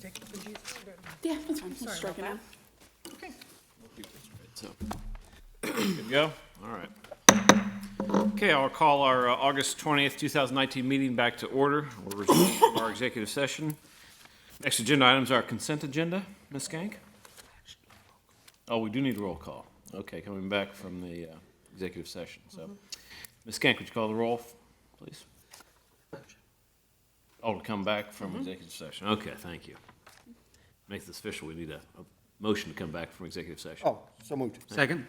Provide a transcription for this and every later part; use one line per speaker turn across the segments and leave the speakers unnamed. Take it from Jesus.
Yeah, that's fine. We'll
sorry
strike it
about
out.
Okay.
So, good to go? All right. Okay, I'll call our uh, August 20th, 2019 meeting back to order. We're resuming from our executive session. Next agenda items are consent agenda. Ms. Gank? Oh, we do need a roll call. Okay, coming back from the uh, executive session, so. Ms. Gank, would you call the roll, please? Oh, to come back from executive session. Okay, thank you. Make this official, we need a a motion to come back from executive session.
Oh, so moved.
Second?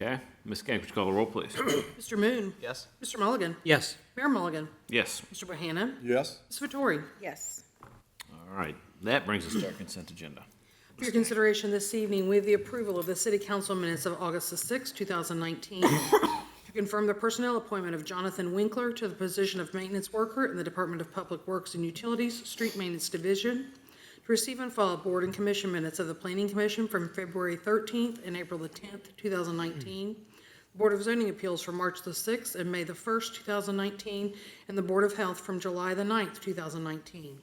Okay, Ms. Gank, would you call the roll, please?
Mr. Moon.
Yes.
Mr. Mulligan.
Yes.
Mayor Mulligan.
Yes,
Mr. Bohannon.
Yes,
Ms. Vettori.
Yes.
all right. That brings us to our consent agenda.
For your consideration this evening, we have the approval of the City Council minutes of August the 6th, 2019, to confirm the personnel appointment of Jonathan Winkler to the position of maintenance worker in the Department of Public Works and Utilities Street Maintenance Division, to receive and file board and commission minutes of the Planning Commission from February 13th and April the 10th, 2019, the Board of Zoning Appeals from March the 6th and May the 1st, 2019, and the Board of Health from July the 9th, 2019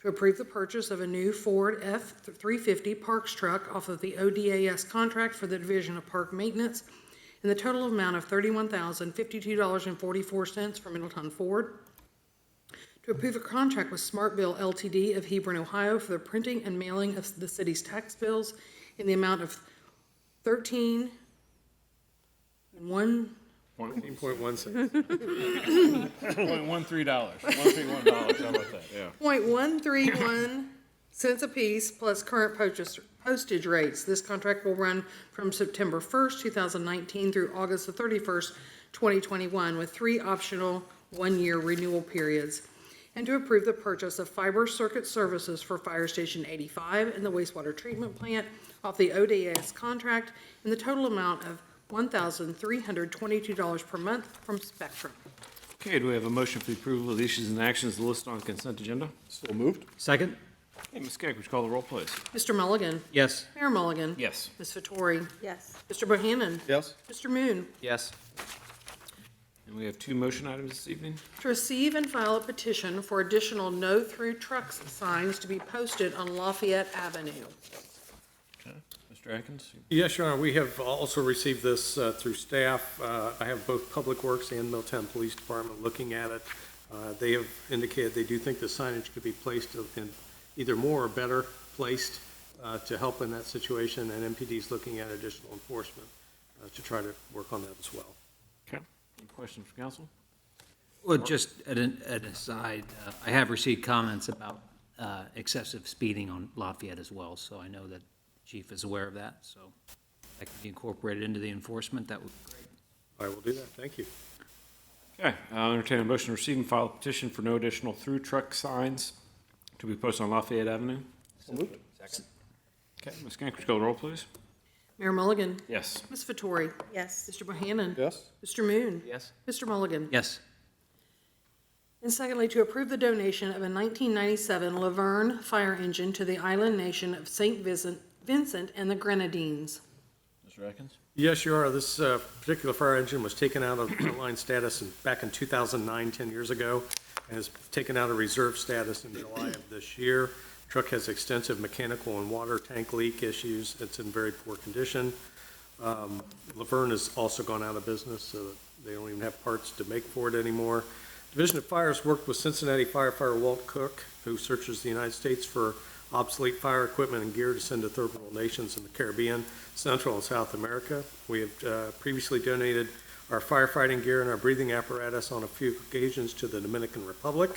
to approve the purchase of a new Ford F-350 Parks truck off of the ODAS contract for the Division of Park Maintenance in the total amount of $31,052.44 for Middletown Ford. To approve a contract with Smartville LTD of Hebron, Ohio for the printing and mailing of the city's tax bills in the amount of 13 and 1
Point Oh, one three dollars. One three one dollars, how about that, yeah.
Point one three one cents apiece plus current purchase postage rates. This contract will run from September first, two thousand nineteen through August the thirty-first, twenty twenty-one, with three optional one-year renewal periods. And to approve the purchase of fiber circuit services for Fire Station eighty-five and the wastewater treatment plant off the ODS contract in the total amount of one thousand three hundred twenty-two dollars per month from Spectrum.
Okay, do we have a motion for the approval of the issues and actions listed on consent agenda?
so moved.
Second?
Hey, Ms. Gank, would you call the roll, please?
Mr. Mulligan?
Yes.
Mayor Mulligan?
Yes.
Ms. Vettori?
Yes.
Mr. Bohannon?
Yes,
Mr. Moon?
Yes.
And we have two motion items this evening.
To receive and file a petition for additional no-through trucks signs to be posted on Lafayette Avenue.
Okay, Mr. Atkins?
Yes, Your Honor, we have also received this uh, through staff. Uh, I have both Public Works and Middletown Police Department looking at it. Uh, They have indicated they do think the signage could be placed in either more or better placed uh, to help in that situation, and MPD is looking at additional enforcement uh, to try to work on that as well.
Okay. Any questions from council?
Well, just at an, an aside, uh, I have received comments about uh, excessive speeding on Lafayette as well, so I know that chief is aware of that, so that can be incorporated into the enforcement, that would be great.
I will do that. Thank you.
Okay, I'll entertain a motion to receive and file a petition for no additional through truck signs to be posted on Lafayette Avenue.
so moved.
Okay, Ms. Gank, would you call the roll, please?
Mayor Mulligan?
Yes.
Ms. Vettori?
Yes.
Mr. Bohannon?
Yes,
Mr. Moon?
Yes.
Mr. Mulligan?
Yes.
And secondly, to approve the donation of a 1997 Laverne fire engine to the island nation of St. Vincent Vincent and the Grenadines.
Mr. Atkins?
Yes, you are. This uh, particular fire engine was taken out of frontline status in- back in 2009, 10 years ago, and is taken out of reserve status in July of this year. Truck has extensive mechanical and water tank leak issues. It's in very poor condition. Um, Laverne has also gone out of business, so they don't even have parts to make for it anymore. Division of Fire has worked with Cincinnati firefighter Walt Cook, who searches the United States for obsolete fire equipment and gear to send to third world nations in the Caribbean, Central, and South America. We have uh, previously donated our firefighting gear and our breathing apparatus on a few occasions to the Dominican Republic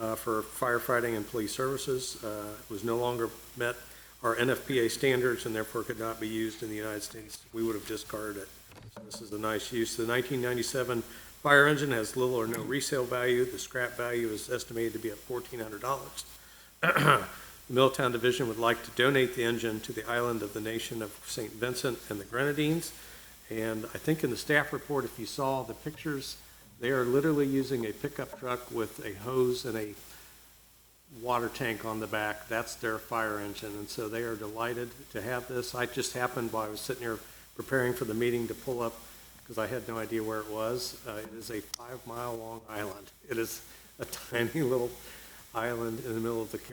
uh, for firefighting and police services. Uh, It was no longer met our NFPA standards and therefore could not be used in the United States. We would have discarded it. So This is a nice use. The 1997 fire engine has little or no resale value. The scrap value is estimated to be at $1,400. The Middletown Division would like to donate the engine to the island of the nation of St. Vincent and the Grenadines. And I think in the staff report, if you saw the pictures, they are literally using a pickup truck with a hose and a water tank on the back. That's their fire engine, and so they are delighted to have this. I just happened while I was sitting here preparing for the meeting to pull up, because I had no idea where it was. Uh, It is a five-mile-long island. It is a tiny little island in the middle of the Caribbean.